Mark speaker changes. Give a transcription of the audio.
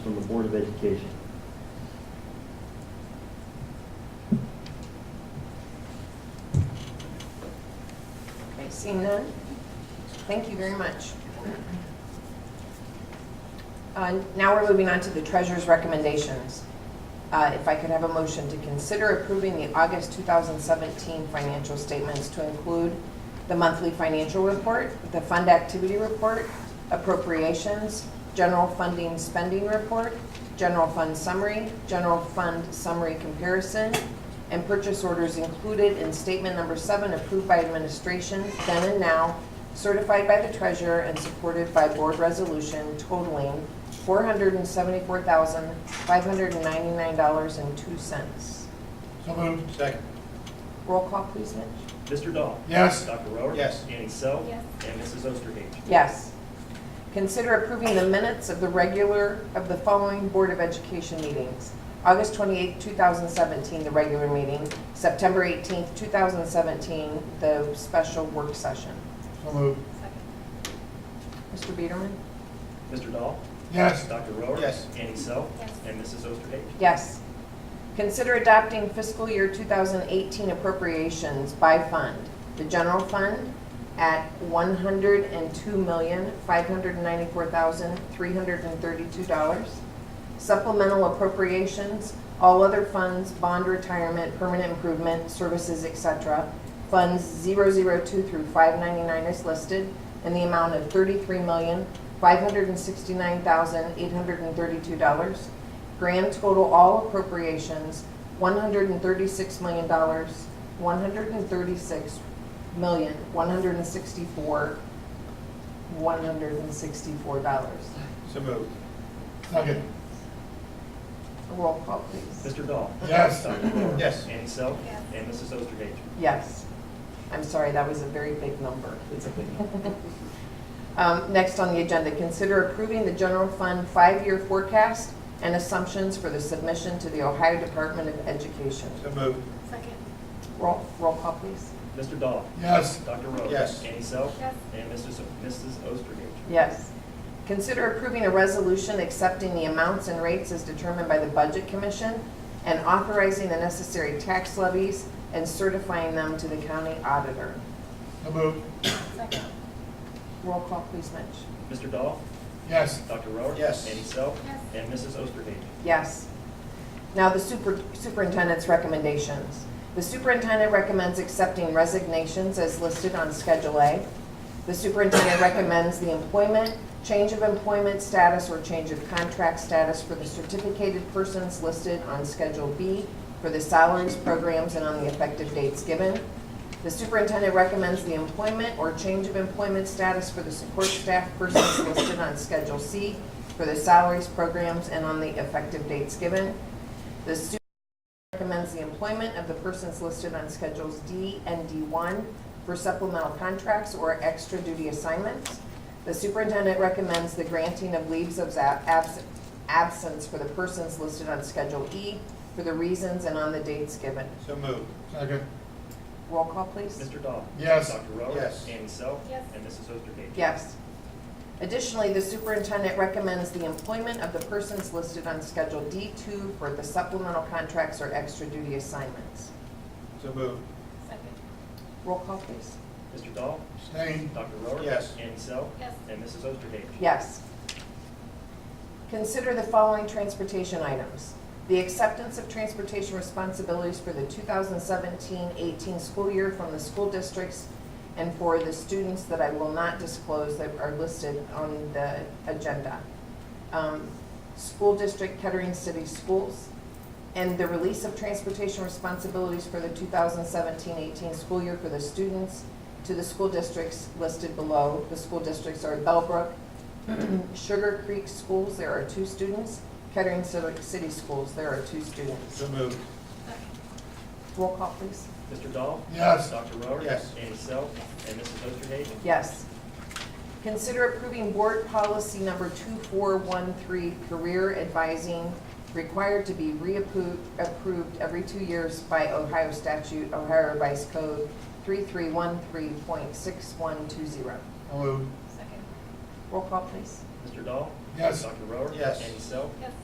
Speaker 1: of Education.
Speaker 2: Okay, seeing none? Thank you very much. Uh, Now we're moving on to the treasurer's recommendations. Uh, If I could have a motion to consider approving the August 2017 financial statements to include the monthly financial report, the fund activity report, appropriations, general funding spending report, general fund summary, general fund summary comparison, and purchase orders included in statement number seven approved by administration then and now, certified by the treasurer and supported by board resolution totaling $474,599.02.
Speaker 3: So moved. Second.
Speaker 2: Roll call, please, Mitch.
Speaker 1: Mr. Dahl?
Speaker 3: Yes.
Speaker 1: Dr. Rohr?
Speaker 3: Yes.
Speaker 1: Annie Self?
Speaker 4: Yes.
Speaker 1: And Mrs. Osterhage?
Speaker 2: Yes. Consider approving the minutes of the regular, of the following Board of Education meetings. August 28, 2017, the regular meeting, September 18, 2017, the special work session.
Speaker 3: So moved.
Speaker 4: Second.
Speaker 2: Mr. Biederman?
Speaker 1: Mr. Dahl?
Speaker 3: Yes.
Speaker 1: Dr. Rohr?
Speaker 3: Yes.
Speaker 1: Annie Self?
Speaker 4: Yes.
Speaker 1: And Mrs. Osterhage?
Speaker 2: Yes. Consider adopting fiscal year 2018 appropriations by fund. The general fund at $102,594,332. Supplemental appropriations, all other funds, bond retirement, permanent improvement, services, etc. Funds 002 through 599 is listed in the amount of $33,569,832. Grand total all appropriations, one hundred and thirty-six million dollars, one hundred and thirty-six million, one hundred and sixty-four, one hundred and sixty-four dollars.
Speaker 3: So moved. Second.
Speaker 2: Roll call, please.
Speaker 1: Mr. Dahl?
Speaker 3: Yes.
Speaker 1: Dr. Rohr?
Speaker 3: Yes.
Speaker 1: Annie Self?
Speaker 4: Yes.
Speaker 1: And Mrs. Osterhage?
Speaker 2: Yes. I'm sorry, that was a very big number. Um, Next on the agenda, consider approving the general fund five-year forecast and assumptions for the submission to the Ohio Department of Education.
Speaker 3: So moved.
Speaker 4: Second.
Speaker 2: Roll, roll call, please.
Speaker 1: Mr. Dahl?
Speaker 3: Yes.
Speaker 1: Dr. Rohr?
Speaker 3: Yes.
Speaker 1: Annie Self?
Speaker 4: Yes.
Speaker 1: And Mrs. O- Mrs. Osterhage?
Speaker 2: Yes. Consider approving a resolution accepting the amounts and rates as determined by the Budget Commission and authorizing the necessary tax levies and certifying them to the county auditor.
Speaker 3: So moved.
Speaker 4: Second.
Speaker 2: Roll call, please, Mitch.
Speaker 1: Mr. Dahl?
Speaker 3: Yes.
Speaker 1: Dr. Rohr?
Speaker 3: Yes.
Speaker 1: Annie Self?
Speaker 4: Yes.
Speaker 1: And Mrs. Osterhage?
Speaker 2: Yes. Now, the super- superintendent's recommendations. The superintendent recommends accepting resignations as listed on Schedule A. The superintendent recommends the employment, change of employment status, or change of contract status for the certificated persons listed on Schedule B for the salaries, programs, and on the effective dates given. The superintendent recommends the employment or change of employment status for the support staff persons listed on Schedule C for the salaries, programs, and on the effective dates given. The superintendent recommends the employment of the persons listed on Schedules D and D1 for supplemental contracts or extra duty assignments. The superintendent recommends the granting of leaves of ab- abs- absence for the persons listed on Schedule E for the reasons and on the dates given.
Speaker 3: So moved. Second.
Speaker 2: Roll call, please.
Speaker 1: Mr. Dahl?
Speaker 3: Yes.
Speaker 1: Dr. Rohr?
Speaker 3: Yes.
Speaker 1: Annie Self?
Speaker 4: Yes.
Speaker 1: And Mrs. Osterhage?
Speaker 2: Yes. Additionally, the superintendent recommends the employment of the persons listed on Schedule D2 for the supplemental contracts or extra duty assignments.
Speaker 3: So moved.
Speaker 4: Second.
Speaker 2: Roll call, please.
Speaker 1: Mr. Dahl?
Speaker 3: Abstain.
Speaker 1: Dr. Rohr?
Speaker 3: Yes.
Speaker 1: Annie Self?
Speaker 4: Yes.
Speaker 1: And Mrs. Osterhage?
Speaker 2: Yes. Consider the following transportation items. The acceptance of transportation responsibilities for the 2017-18 school year from the school districts and for the students that I will not disclose that are listed on the agenda. Um, School District Kettering City Schools, and the release of transportation responsibilities for the 2017-18 school year for the students to the school districts listed below. The school districts are Bellbrook, Sugar Creek Schools, there are two students, Kettering Ci- City Schools, there are two students.
Speaker 3: So moved.
Speaker 4: Second.
Speaker 2: Roll call, please.
Speaker 1: Mr. Dahl?
Speaker 3: Yes.
Speaker 1: Dr. Rohr?
Speaker 3: Yes.
Speaker 1: Annie Self? And Mrs. Osterhage?
Speaker 2: Yes. Consider approving board policy number 2413, career advising, required to be reapproved approved every two years by Ohio statute, Ohio Revised Code 3313.6120.
Speaker 3: So moved.
Speaker 4: Second.
Speaker 2: Roll call, please.
Speaker 1: Mr. Dahl?
Speaker 3: Yes.
Speaker 1: Dr. Rohr?
Speaker 3: Yes.
Speaker 1: Annie Self?
Speaker 4: Yes.